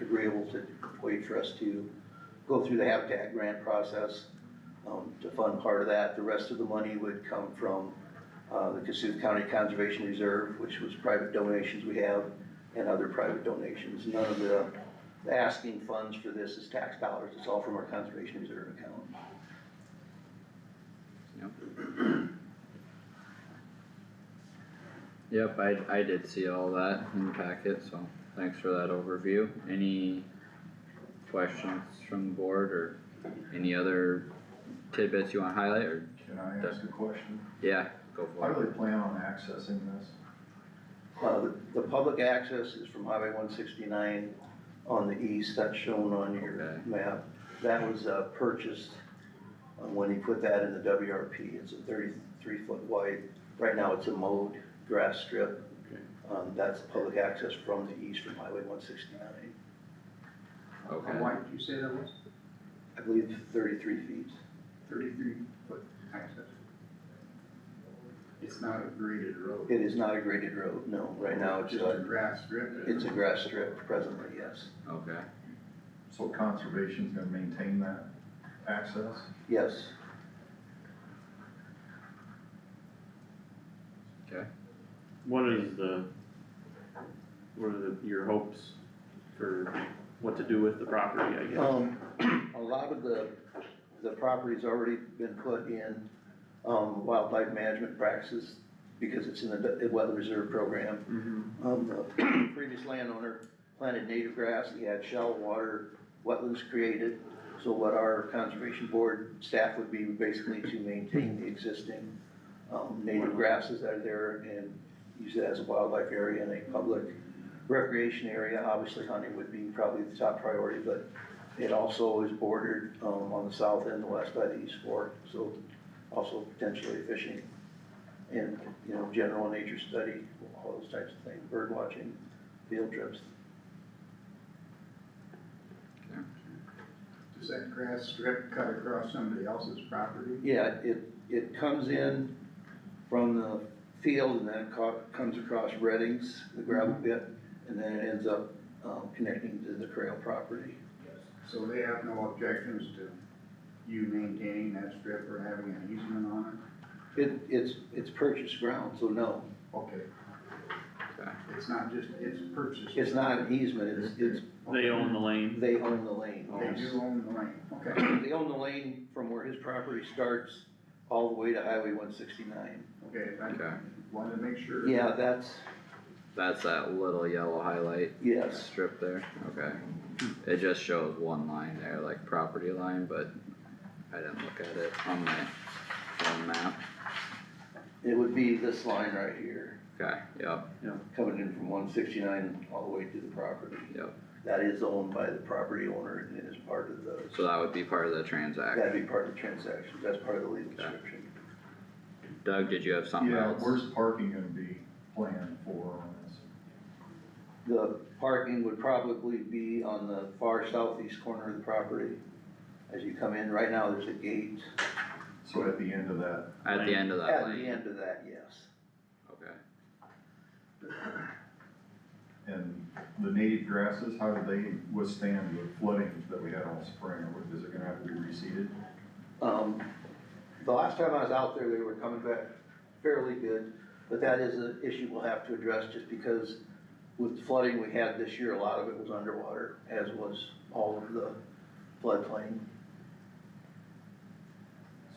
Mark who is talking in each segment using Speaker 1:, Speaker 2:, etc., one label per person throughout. Speaker 1: agreeable to wait for us to go through the Habitat grant process um, to fund part of that. The rest of the money would come from uh, the Cassuth County Conservation Reserve, which was private donations we have, and other private donations. None of the the asking funds for this is tax dollars, it's all from our Conservation Reserve account.
Speaker 2: Yep, I, I did see all that in the packet, so thanks for that overview. Any questions from the board or any other tidbits you wanna highlight or,
Speaker 3: Can I ask a question?
Speaker 2: yeah, go
Speaker 3: How
Speaker 2: for
Speaker 3: do they plan on accessing this?
Speaker 1: Uh, the, the public access is from Highway one sixty-nine on the east, that's shown on your
Speaker 2: Okay.
Speaker 1: map. That was, uh, purchased uh, when he put that in the WRP, it's a thirty-three foot wide, right now it's a mowed grass strip.
Speaker 2: Okay.
Speaker 1: Um, that's public access from the east from Highway one sixty-nine,
Speaker 2: it. Okay,
Speaker 4: How wide did you say that was?
Speaker 1: I believe thirty-three feet.
Speaker 4: Thirty-three foot access. It's not a graded road.
Speaker 1: It is not a graded road, no, right now it's
Speaker 4: Just a
Speaker 1: a,
Speaker 4: grass strip.
Speaker 1: it's a grass strip presently, yes.
Speaker 2: okay,
Speaker 3: So conservation's gonna maintain that access?
Speaker 1: Yes,
Speaker 5: What is the, what are the, your hopes for what to do with the property, I guess?
Speaker 1: Um, a lot of the, the property's already been put in, um, wildlife management practices because it's in the weather reserve program.
Speaker 5: Mhm.
Speaker 1: Um, the previous landowner planted native grass, he had shallow water, wetlands created. So what our conservation board staff would be basically to maintain the existing, um, native grasses that are there and use it as a wildlife area and a public recreation area. Obviously hunting would be probably the top priority, but it also is bordered, um, on the south and the west by the east fork, so also potentially fishing and, you know, general nature study, all those types of things, bird watching, field trips.
Speaker 4: Does that grass strip cut across somebody else's property?
Speaker 1: Yeah, it, it comes in from the field and then it co- comes across Reddings, the gravel
Speaker 4: Mm-hmm.
Speaker 1: pit, and then it ends up, um, connecting to the trail property.
Speaker 4: So they have no objections to you maintaining that strip or having an easement on
Speaker 1: It, it's, it's purchased ground, so no,
Speaker 4: it? Okay,
Speaker 2: okay,
Speaker 4: it's not just, it's purchased.
Speaker 1: it's not an easement, it's, it's,
Speaker 5: They own the lane,
Speaker 1: they own the lane.
Speaker 4: They do own the lane, okay,
Speaker 1: They own the lane from where his property starts all the way to Highway one sixty-nine.
Speaker 4: okay, I
Speaker 2: okay.
Speaker 4: wanted to make sure.
Speaker 1: Yeah, that's,
Speaker 2: That's that little yellow highlight
Speaker 1: yes,
Speaker 2: strip there, okay. It just shows one line there, like property line, but I didn't look at it on my phone map.
Speaker 1: it would be this line right here.
Speaker 2: Okay, yep,
Speaker 1: coming in from one sixty-nine all the way to the property.
Speaker 2: Yep.
Speaker 1: That is owned by the property owner and it is part of the,
Speaker 2: so that would be part of the transaction.
Speaker 1: that'd be part of the transaction, that's part of the legal description.
Speaker 2: Doug, did you have something
Speaker 3: Yeah,
Speaker 2: else?
Speaker 3: where's parking gonna be planned for on this?
Speaker 1: The parking would probably be on the far southeast corner of the property. As you come in, right now, there's a gate
Speaker 3: So at the end of that,
Speaker 2: At the end of that
Speaker 1: at the
Speaker 2: lane,
Speaker 1: end of that, yes.
Speaker 2: okay.
Speaker 3: and the native grasses, how do they withstand the flooding that we had all spring? Or is it gonna have to be reseeded?
Speaker 1: Um, the last time I was out there, they were coming back fairly good, but that is an issue we'll have to address just because with flooding we had this year, a lot of it was underwater, as was all of the floodplain.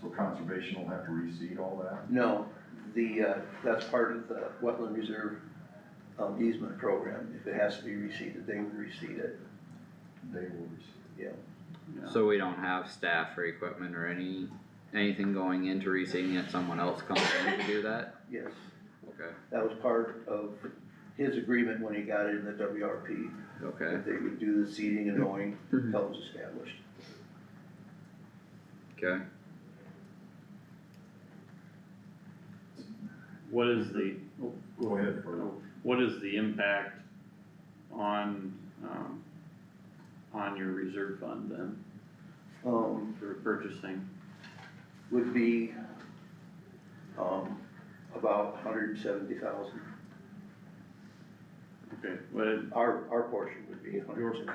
Speaker 3: So conservation will have to reseed all that?
Speaker 1: No, the, uh, that's part of the wetland reserve um, easement program. If it has to be reseeded, they would reseed it,
Speaker 3: They will reseed.
Speaker 1: yeah.
Speaker 5: Yeah.
Speaker 2: So we don't have staff or equipment or any, anything going into reseeding it, someone else comes in to do that?
Speaker 1: Yes,
Speaker 2: Okay,
Speaker 1: that was part of his agreement when he got it in the WRP,
Speaker 2: okay,
Speaker 1: that they would do the seeding and mowing
Speaker 2: Mhm.
Speaker 1: until it was established.
Speaker 2: okay.
Speaker 5: what is the,
Speaker 3: Go ahead, Bert.
Speaker 5: what is the impact on, um, on your reserve fund then,
Speaker 1: Um,
Speaker 5: for purchasing?
Speaker 1: would be, um, about hundred and seventy thousand.
Speaker 5: Okay, what,
Speaker 1: Our, our portion would be 170,000.
Speaker 5: Yours.